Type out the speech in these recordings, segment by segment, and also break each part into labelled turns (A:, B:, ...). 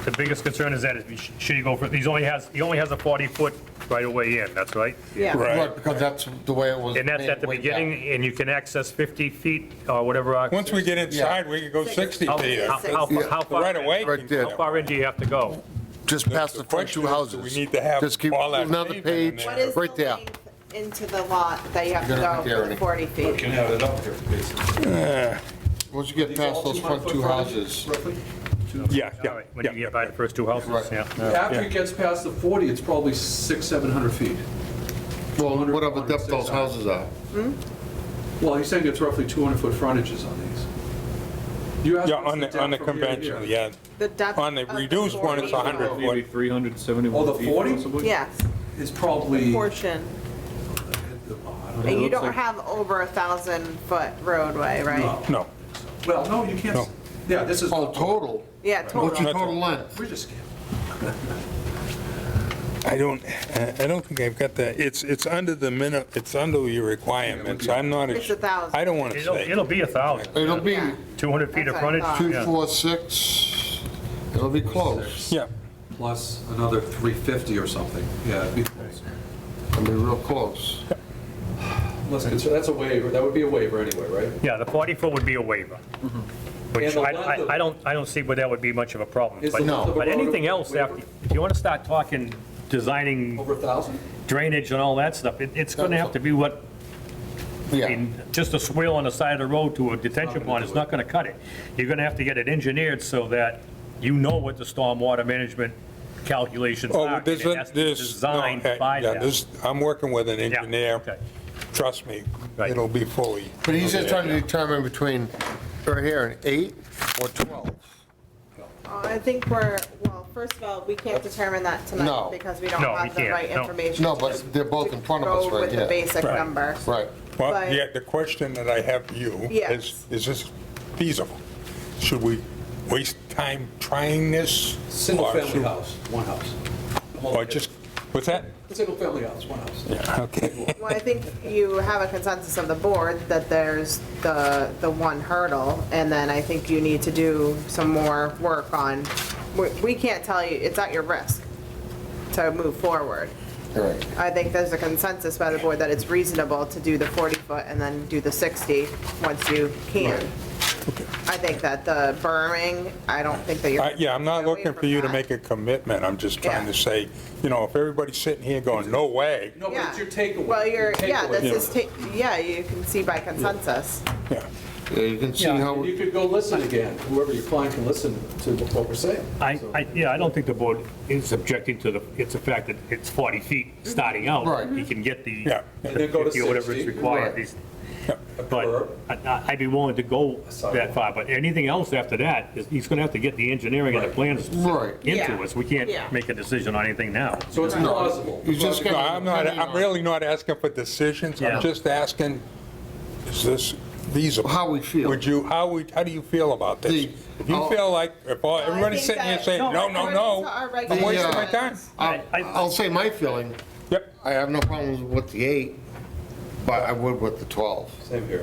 A: The biggest concern is that, is should he go for, he's only has, he only has a 40-foot right-of-way in, that's right?
B: Yeah.
C: Right.
D: Right, because that's the way it was.
A: And that's at the
D: way back.
A: beginning, and you can access 50 feet or whatever. uh,
C: Once we get inside, we can go 60
A: How
C: feet.
A: how- how-
B: Yeah.
A: how far?
C: Right away.
D: Right
A: How
D: there,
A: far in do you have to go?
D: just past the front
C: question
D: two
C: is, do
D: houses.
C: we need to have
D: Just keep
C: all that
D: another
C: pavement in
D: page,
C: there?
B: What is the
D: right there.
B: length into the lot that you have
D: You're gonna
B: to
D: have
B: go
D: to
B: for
D: get
B: 40 feet?
E: Can have it up here, basically.
D: Once you get past those front two houses,
E: Roughly.
C: Yeah,
A: All right, When you get by the first two houses,
D: Right.
A: yeah.
E: After it gets past the 40, it's probably six, 700 feet.
D: well, whatever depth those houses are.
E: Well, he's saying it's roughly 200-foot frontages on these. You asked
C: Yeah,
E: us
C: on
E: the
C: the, on the
E: depth from here to here.
C: conventional, yeah.
B: The depth
C: On the
B: of
C: reduced one, it's
B: 40
C: 100
B: feet.
C: feet.
F: Maybe 371
E: Oh, the
F: feet
E: 40?
F: possibly?
B: Yes,
E: It's probably, I
B: portion.
E: don't
B: And
E: know.
B: you don't
F: like-
B: have over a 1,000-foot roadway, right?
E: No.
C: No,
E: Oh. Well, no, you can't, s- yeah, this is,
D: Oh, total,
B: Yeah,
D: what's
B: total.
D: your total length?
E: we just can't.
C: I don't, I don't think I've got that. It's, it's under the minimum, it's under your requirements. I'm not.
B: It's a thousand.
C: I don't want to
A: It'll,
C: say.
A: it'll be a 1,000,
D: It'll be
B: Yeah.
A: 200 feet of
B: That's what I
A: frontage.
B: thought.
D: two,
A: yeah.
D: four, six, it'll be close,
C: Yeah,
E: Plus another 350 or something, yeah, it'd be close.
D: it'll be real close.
E: Let's consider, that's a waiver, that would be a waiver anyway, right?
A: Yeah, the 40-foot would be a waiver, which
E: Mm-hmm. And the
A: I-
E: length of-
A: I I don't, I don't see where that would be much of a problem.
E: Is the
A: But-
E: length of the
A: But
E: road
A: anything
E: a
A: else,
E: waiver?
A: after, if you want to start talking, designing
E: Over a 1,000?
A: drainage and all that stuff, it- it's going to have to be what I
D: Yeah,
A: mean, just a swale on the side of the road to a detention pond is not gonna cut it. You're gonna have to get it engineered so that you know what the stormwater management calculations are.
C: oh,
A: and
C: there's,
A: it has to be
C: there's, no,
A: Designed
C: yeah,
A: by that.
C: this, I'm working with an
A: Yeah,
C: engineer.
A: okay.
C: Trust me,
A: Right.
C: it'll be fully.
D: but he's just trying to determine between, right here, an eight or 12.
B: Uh, I think we're, well, first of all, we can't determine that
D: No.
B: tonight because we don't
A: No, we
B: have the
A: can't,
B: right
A: no.
B: information.
D: No,
B: to-
D: but they're both in front of us
B: to
D: right
B: Go with the
D: here.
B: basic
C: Right.
B: number.
D: Right,
C: Well,
B: But-
C: yeah, the question that I have for you
B: Yes.
C: is, is this feasible? Should we waste time trying this? Or
E: Single-family
C: should-
E: house, one house.
C: Or just, what's that?
E: Single-family house, one house.
C: Yeah, okay.
B: Well, I think you have a consensus of the board that there's the, the one hurdle, and then I think you need to do some more work on, we- we can't tell you, it's at your risk to move forward.
D: right.
B: I think there's a consensus by the board that it's reasonable to do the 40-foot and then do the 60 once you can. I think that the berming, I don't think that you're.
C: I- Yeah, I'm not
B: away
C: looking
B: from
C: for you to
B: that.
C: make a commitment, I'm just trying
B: Yeah.
C: to say, you know, if everybody's sitting here going, no way,
E: No, but it's your takeaway.
B: Well, you're, yeah,
E: takeaway.
B: this is, ta- yeah, you can see by consensus.
C: yeah.
D: Yeah, you can see
E: Yeah,
D: how,
E: you could go listen again, whoever your client can listen to what we're saying.
A: I, I, yeah, I don't think the board is objecting to the, it's a fact that it's 40 feet starting out.
D: Right.
A: You can get the
C: Yeah.
E: And then go to
A: 50 or whatever is
E: 60,
A: required.
D: right.
A: These-
E: A
A: But
E: curb.
A: I- I'd be willing to go that far, but anything else after that, is- he's gonna have to get the engineering and the plans
D: Right.
A: into
B: Yeah.
A: us. We
B: Yeah.
A: can't make a decision on anything now.
E: So it's plausible.
D: you just
C: No,
D: gotta.
C: I'm not,
D: depending
C: I'm
D: on
C: really not asking for decisions,
A: Yeah.
C: I'm just asking, is this feasible?
D: How we feel.
C: Would you, how we, how do you feel about this?
D: The-
C: If you
D: I'll-
C: feel like, if all- everybody's
B: think
C: sitting here
B: that-
C: saying, no, no,
B: according
C: no,
B: to our
C: I'm wasting my time.
B: regulations-
D: I'll I'll say my feeling,
C: Yep,
D: I have no problems with the eight, but I would with the 12.
E: Same here.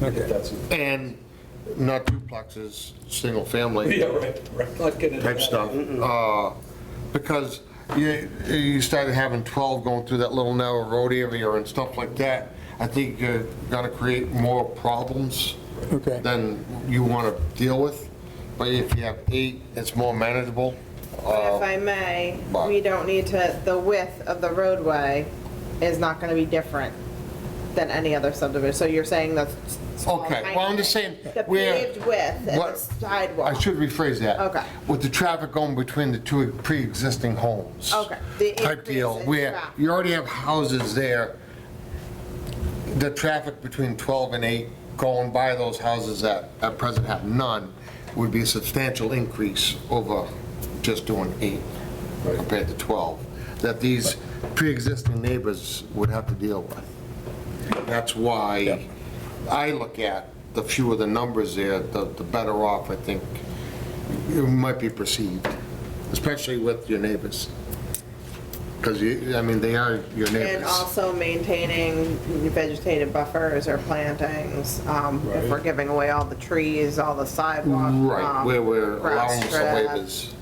E: If
C: okay,
E: that's-
D: And not duplexes, single family
E: Yeah, right, right. Not getting into
D: type
E: that.
D: stuff. Uh, Because you, you started having 12 going through that little narrow road area and stuff like that. I think you're gonna create more problems
C: okay.
D: than you wanna deal with. But if you have eight, it's more manageable.
B: But if I may,
D: but-
B: we don't need to, the width of the roadway is not gonna be different than any other subdivision, so you're saying that's. small,
D: Okay,
B: tiny
D: well, I'm
B: bit.
D: just saying,
B: The
D: where-
B: paved width and the
D: What- I
B: sidewalk.
D: should rephrase that.
B: Okay.
D: With the traffic going between the two pre-existing homes.
B: Okay, the
D: Type deal,
B: increase in
D: where
B: traffic.
D: you already have houses there. The traffic between 12 and 8 going by those houses that at present have none would be a substantial increase over just doing 8 compared to 12, that these pre-existing neighbors would have to deal with. That's why I look at, the fewer the numbers there, the the better off I think you might be perceived, especially with your neighbors. Because you, I mean, they are your
B: And
D: neighbors.
B: also maintaining vegetated buffers or plantings, um, if we're giving away all the trees, all the sidewalk.
D: Right,
B: um,
D: where we're
B: grass
D: allowing some
B: strip.
D: waivers.